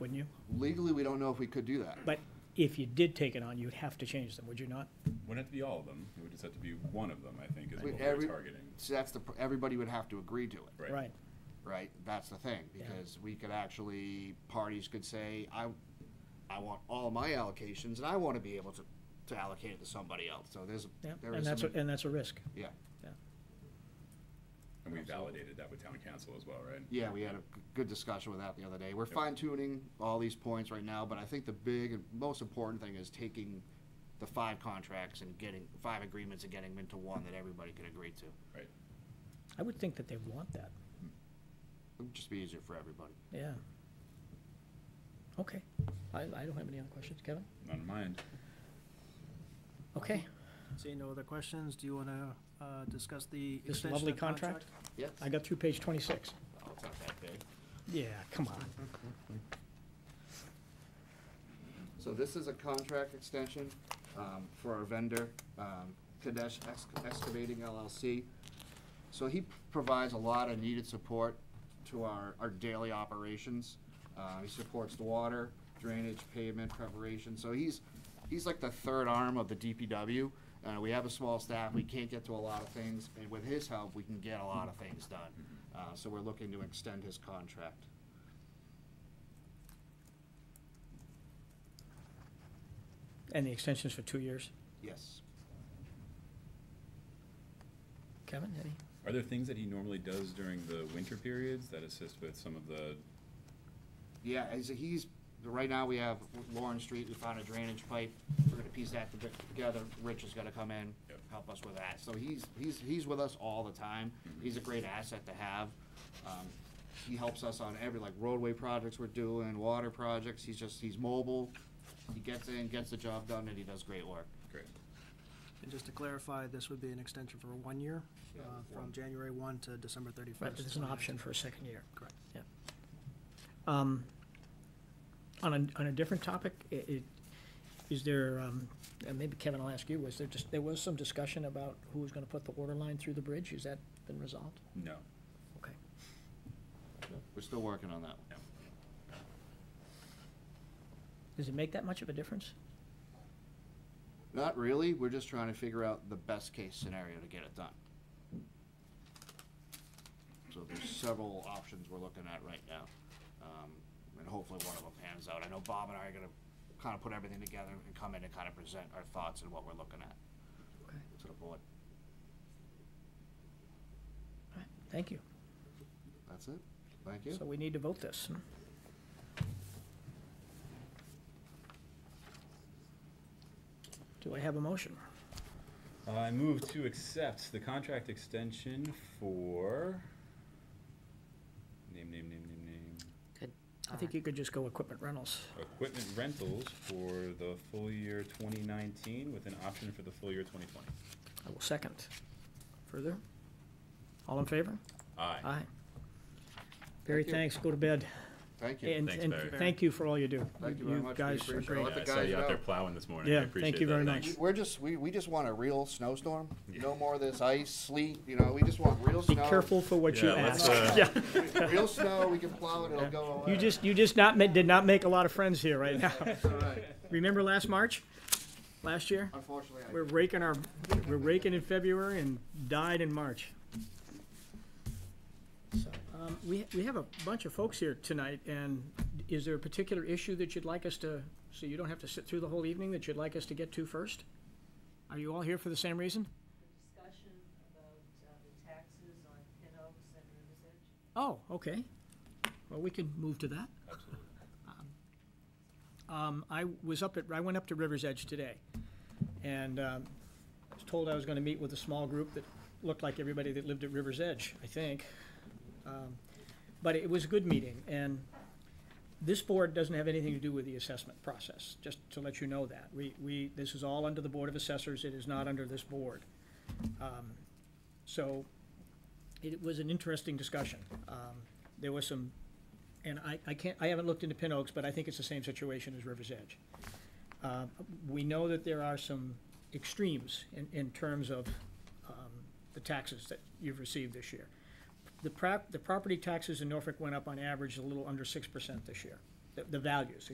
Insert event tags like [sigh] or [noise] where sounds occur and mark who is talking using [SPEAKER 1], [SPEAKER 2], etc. [SPEAKER 1] you?
[SPEAKER 2] Legally, we don't know if we could do that.
[SPEAKER 1] But if you did take it on, you'd have to change them, would you not?
[SPEAKER 3] Wouldn't have to be all of them, it would just have to be one of them, I think, is
[SPEAKER 2] We-
[SPEAKER 3] what
[SPEAKER 2] every-
[SPEAKER 3] we're targeting.
[SPEAKER 2] So that's the, pr- everybody would have to agree to it,
[SPEAKER 3] Right.
[SPEAKER 1] Right.
[SPEAKER 2] right? That's the thing, because we could actually, parties could say, I, I want all my allocations and I want to be able to, to allocate it to somebody else. So there's,
[SPEAKER 1] Yeah,
[SPEAKER 2] there
[SPEAKER 1] and
[SPEAKER 2] is
[SPEAKER 1] that's,
[SPEAKER 2] some,
[SPEAKER 1] a- and that's a risk.
[SPEAKER 2] yeah.
[SPEAKER 3] And we validated that with town council as well, right?
[SPEAKER 2] Yeah, we had a g- good discussion with that the other day. We're fine tuning all these points right now, but I think the big and most important thing is taking the five contracts and getting, five agreements and getting them into one that everybody can agree to.
[SPEAKER 3] Right.
[SPEAKER 1] I would think that they want that,
[SPEAKER 2] It would just be easier for everybody.
[SPEAKER 1] yeah. Okay, I, I don't have any other questions, Kevin?
[SPEAKER 3] Not in mind.
[SPEAKER 1] Okay,
[SPEAKER 4] Seeing no other questions, do you want to discuss the
[SPEAKER 1] This
[SPEAKER 4] extension
[SPEAKER 1] lovely
[SPEAKER 4] of contract?
[SPEAKER 2] Yes?
[SPEAKER 1] I got through page twenty-six.
[SPEAKER 2] Oh, it's not that big.
[SPEAKER 1] Yeah, come on.
[SPEAKER 2] So this is a contract extension um, for our vendor, um, Kadesh Ex- Excavating LLC. So he p- provides a lot of needed support to our, our daily operations. Uh, He supports the water, drainage, pavement preparation. So he's, he's like the third arm of the DPW. Uh, We have a small staff, we can't get to a lot of things, and with his help, we can get a lot of things done. Uh, So we're looking to extend his contract.
[SPEAKER 1] And the extension's for two years.
[SPEAKER 2] Yes.
[SPEAKER 1] Kevin, any?
[SPEAKER 3] Are there things that he normally does during the winter periods that assist with some of the,
[SPEAKER 2] Yeah, he's, he's, right now we have Lauren Street, we found a drainage pipe, we're gonna piece that to- together, Rich is gonna come in,
[SPEAKER 3] Yep.
[SPEAKER 2] help us with that, so he's, he's, he's with us all the time, he's a great asset to have. Um, He helps us on every, like roadway projects we're doing, water projects, he's just, he's mobile, he gets in, gets the job done, and he does great work.
[SPEAKER 3] great,
[SPEAKER 4] And just to clarify, this would be an extension for one year,
[SPEAKER 2] Yeah,
[SPEAKER 4] uh,
[SPEAKER 2] one.
[SPEAKER 4] from January 1 to December 31st.
[SPEAKER 1] Right, but there's an option for a second year.
[SPEAKER 4] Correct.
[SPEAKER 1] Yeah. Um, On a, on a different topic, i- i- is there, um, and maybe Kevin, I'll ask you, was there just, there was some discussion about who was gonna put the water line through the bridge? Has that been resolved?
[SPEAKER 3] no,
[SPEAKER 1] Okay.
[SPEAKER 2] We're still working on that one.
[SPEAKER 3] no.
[SPEAKER 1] Does it make that much of a difference?
[SPEAKER 2] Not really, we're just trying to figure out the best case scenario to get it done. So there's several options we're looking at right now. Um, and hopefully one of them pans out. I know Bob and I are gonna kinda put everything together and come in and kinda present our thoughts and what we're looking at
[SPEAKER 1] Okay.
[SPEAKER 2] to the board.
[SPEAKER 1] Thank you.
[SPEAKER 2] That's it? Thank you.
[SPEAKER 1] So we need to vote this. Do I have a motion?
[SPEAKER 3] Uh, I move to accept the contract extension for, name, name, name, name, name,
[SPEAKER 5] Good.
[SPEAKER 1] I think you could just go equipment rentals.
[SPEAKER 3] equipment rentals for the full year twenty nineteen with an option for the full year twenty twenty.
[SPEAKER 1] I will second. Further? All in favor?
[SPEAKER 3] Aye.
[SPEAKER 1] Aye. Barry,
[SPEAKER 2] Thank you.
[SPEAKER 1] thanks, go to bed.
[SPEAKER 2] Thank you.
[SPEAKER 1] And,
[SPEAKER 3] Thanks,
[SPEAKER 1] and
[SPEAKER 3] Barry.
[SPEAKER 1] thank you for all you do.
[SPEAKER 2] Thank you very much. We
[SPEAKER 1] guys are
[SPEAKER 2] appreciate it.
[SPEAKER 1] great.
[SPEAKER 2] Let the
[SPEAKER 3] Yeah, I saw you
[SPEAKER 2] guys
[SPEAKER 3] out there
[SPEAKER 2] know.
[SPEAKER 3] plowing this morning. I
[SPEAKER 1] Yeah, thank
[SPEAKER 3] appreciate
[SPEAKER 1] you
[SPEAKER 3] that
[SPEAKER 1] very
[SPEAKER 3] a lot.
[SPEAKER 1] much.
[SPEAKER 2] We're just, we, we just want a real snowstorm. No more of this ice, sleet, you know, we just want real
[SPEAKER 1] Be
[SPEAKER 2] snow.
[SPEAKER 1] careful for what you
[SPEAKER 3] Yeah, let's,
[SPEAKER 1] ask.
[SPEAKER 3] uh,
[SPEAKER 1] Yeah.
[SPEAKER 2] [laughs] Real snow, we can plow it, it'll go
[SPEAKER 1] [laughs]
[SPEAKER 2] away.
[SPEAKER 1] You just, you just not, ma- did not make a lot of friends here right
[SPEAKER 2] [laughs]
[SPEAKER 1] now.
[SPEAKER 2] It's all right.
[SPEAKER 1] Remember last March? Last year?
[SPEAKER 2] Unfortunately, I.
[SPEAKER 1] We're raking our, we're raking in February and died in March. So, um, we, we have a bunch of folks here tonight, and is there a particular issue that you'd like us to, so you don't have to sit through the whole evening, that you'd like us to get to first? Are you all here for the same reason?
[SPEAKER 6] discussion about uh, the taxes on Pin Oaks and Rivers Edge.
[SPEAKER 1] Oh, okay. Well, we can move to that. Absolutely. Um, I was up at, I went up to River's Edge today, and, um, I was told I was gonna meet with a small group that looked like everybody that lived at River's Edge, I think. Um, But it was a good meeting, and this board doesn't have anything to do with the assessment process, just to let you know that. We, we, this is all under the Board of Assessors, it is not under this board. Um, So, it was an interesting discussion. Um, There was some, and I, I can't, I haven't looked into Pin Oaks, but I think it's the same situation as River's Edge. Uh, We know that there are some extremes in, in terms of um, the taxes that you've received this year. The prop, the property taxes in Norfolk went up on average a little under six percent this year. the, the values,